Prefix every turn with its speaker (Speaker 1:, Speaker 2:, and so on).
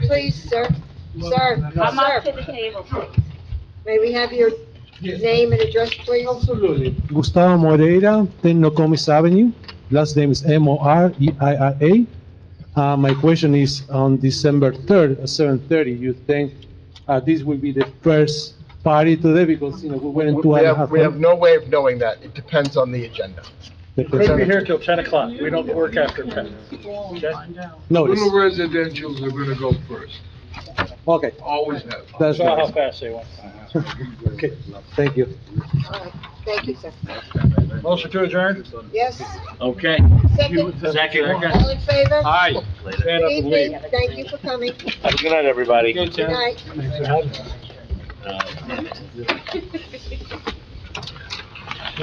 Speaker 1: please, sir? Sir,
Speaker 2: Come up to
Speaker 1: sir,
Speaker 2: the table, please.
Speaker 1: may we have your name and address, please?
Speaker 3: Absolutely.
Speaker 4: Gustavo Moreira, 10 Nokomis Avenue. Last name is E M-O-R-E-I-R-A. Uh, My question is, on December 3rd, at 7:30, you think uh, this will be the first party today? Because, you know, we went in two
Speaker 5: We
Speaker 4: and a
Speaker 5: have,
Speaker 4: half.
Speaker 5: we have no way of knowing that. It depends on the agenda.
Speaker 6: Could be
Speaker 4: have
Speaker 6: here till ten o'clock, we don't work after ten. Okay?
Speaker 4: notice.
Speaker 3: Little residentials are gonna go first,
Speaker 4: Okay,
Speaker 3: always have.
Speaker 4: that's
Speaker 5: Uh-huh.
Speaker 6: Saw how
Speaker 4: right.
Speaker 6: fast they went.
Speaker 4: Okay, Thank you.
Speaker 1: All right. Uh, Thank you, sir.
Speaker 6: Motion to adjourn?
Speaker 1: Yes,
Speaker 7: Okay,
Speaker 1: second,
Speaker 7: second.
Speaker 1: all in favor?
Speaker 6: Aye. Stand up
Speaker 1: Good
Speaker 6: and leave.
Speaker 1: evening, thank you for coming, good
Speaker 7: Have a good night, everybody.
Speaker 1: night.
Speaker 7: Uh,